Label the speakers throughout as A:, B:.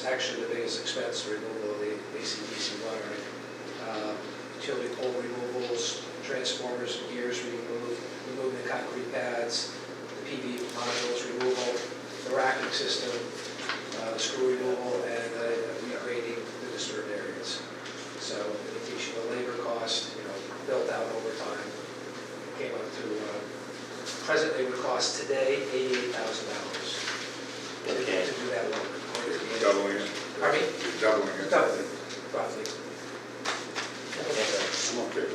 A: It's actually the biggest expense, the removal of the AC/DC wiring. Uh, Utility pole removals, transformers, and gears removed, removing the concrete pads, the PV modules removal, the racking system, uh, screw removal, and uh, regrading the disturbed areas. So in addition to labor cost, you know, built out over time, came up to, uh, presently would cost today eighty-eight thousand dollars to to
B: Okay.
A: do that work. or to be able-
C: Doubling it.
A: Pardon me?
C: You're Doubling it.
A: Double. Roughly.
C: I'm okay.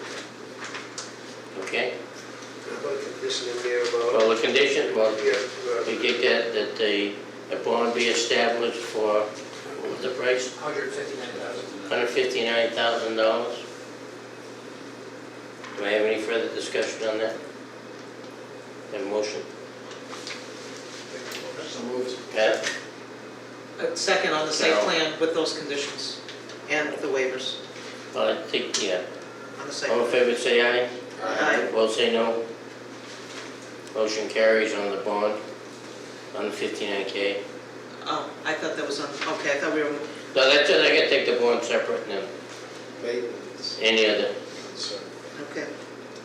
B: Okay,
D: About the condition in there about,
B: well, the condition, well,
D: yeah, uh,
B: we get that, that the, a bond be established for, what was the price?
A: Hundred fifty-nine thousand.
B: Hundred fifty-nine thousand dollars? Do I have any further discussion on that? Have a motion?
A: So moved.
B: Pat,
E: A Uh, Second on the site
B: No.
E: plan with those conditions and the waivers
B: well, I think, yeah,
E: on the site.
B: all in favor, say aye.
E: Aye.
B: Opposed, say no. Motion carries on the bond, on the fifty-nine K.
E: Oh, I thought that was on, okay, I thought we were,
B: No, that's it, I gotta take the bond separate and then
D: maintenance.
B: any other,
E: okay.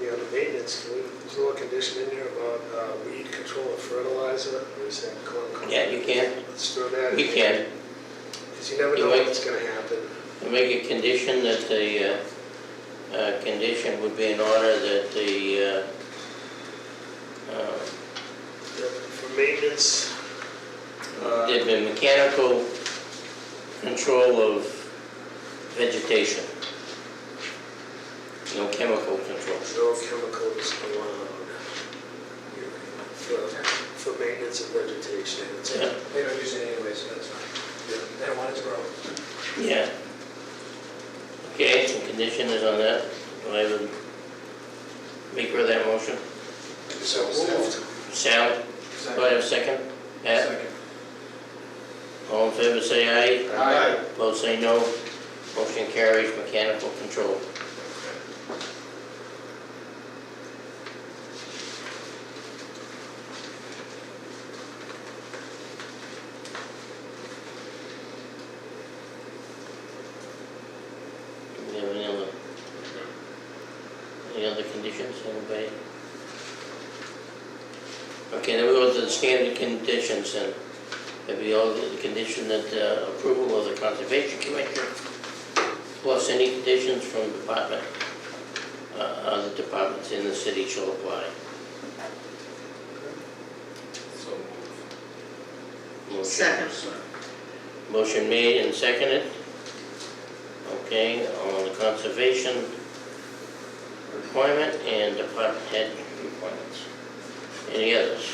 D: Yeah, the maintenance, can we, there's a little condition in there about uh, weed control and fertilizer, or is that going?
B: Yeah, you can.
D: Let's throw that in.
B: you can.
D: Because you never
B: You
D: know
B: might-
D: what's gonna happen.
B: I Make a condition that the, uh, uh, condition would be in order that the, uh, uh,
D: For maintenance, uh,
B: there'd be mechanical control of vegetation. No chemical control.
D: no chemicals allowed for, for maintenance of vegetation. It's-
B: Yeah,
A: They don't use it anyway, so that's fine.
D: yeah.
A: They don't want it to grow.
B: yeah. Okay, some condition is on that. Do I would make her that motion?
D: So moved.
B: Sal, do I have a second? Pat, all in favor, say aye.
D: Aye.
B: Both say no. Motion carries, mechanical control. Do we have any other, any other conditions, anybody? Okay, then we go to the standard conditions then. That'd be all the condition that uh, approval of the conservation commission, plus any conditions from department, uh, other departments in the city shall apply. Motion-
E: Second.
B: Motion made and seconded. Okay, on the conservation requirement and department head requirements. Any others?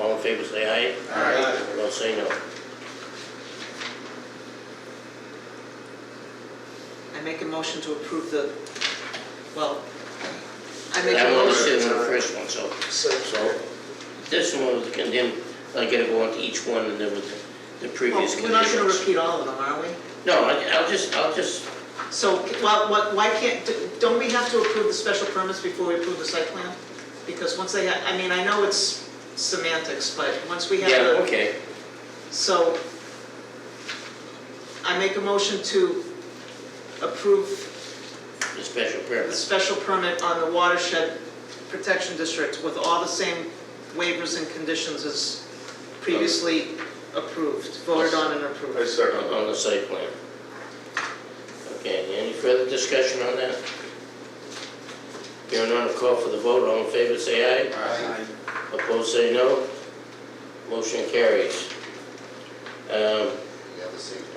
B: All in favor, say aye.
C: Aye.
B: Well, say no.
E: I make a motion to approve the, well, I make a
B: That one was
E: motion.
B: in the first one, so
D: So,
B: So- this one was condemned, I gotta go on to each one and then with the the previous
E: Well, Oh, We're not gonna
B: conditions.
E: repeat all of them, are we?
B: No, I- I'll just, I'll just,
E: So, well, what, why can't, don't we have to approve the special permits before we approve the site plan? Because once they, ha- I mean, I know it's semantics, but once we have the.
B: yeah, okay.
E: So I make a motion to approve
B: The special
E: the
B: permit,
E: special permit on the watershed protection district with all the same waivers and conditions as previously approved, voted on and
C: I
E: approved.
B: on
C: second.
B: on the site plan. Okay, any further discussion on that? Hearing none, call for the vote, all in favor, say aye. Opposed, say no. Motion carries. Um,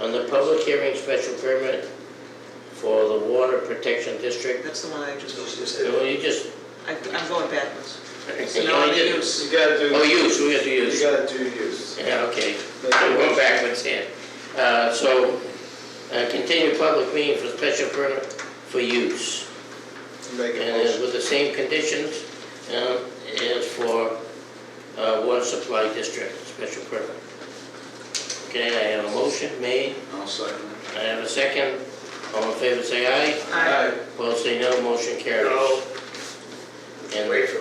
B: On the public hearing special permit for the water protection district,
E: That's the one I
D: it's
E: just,
D: just
B: well,
D: a-
B: you just,
E: I- I'm going backwards. So
B: you
E: now
B: only
E: I'm
B: did.
E: use.
C: gotta do.
B: Oh, use, we have to use.
C: gotta do use.
B: Yeah, okay. I'm going backwards here. Uh, so, uh, continue public meeting for special permit for use.
C: Make
B: And it's with the same conditions, um, as for, uh, water supply district, special permit. Okay, I have a motion made,
C: I'll second.
B: I have a second. All in favor, say aye.
E: I-
B: Opposed, say no, motion carries.
D: No,
B: And-
D: wait
B: uh,
D: for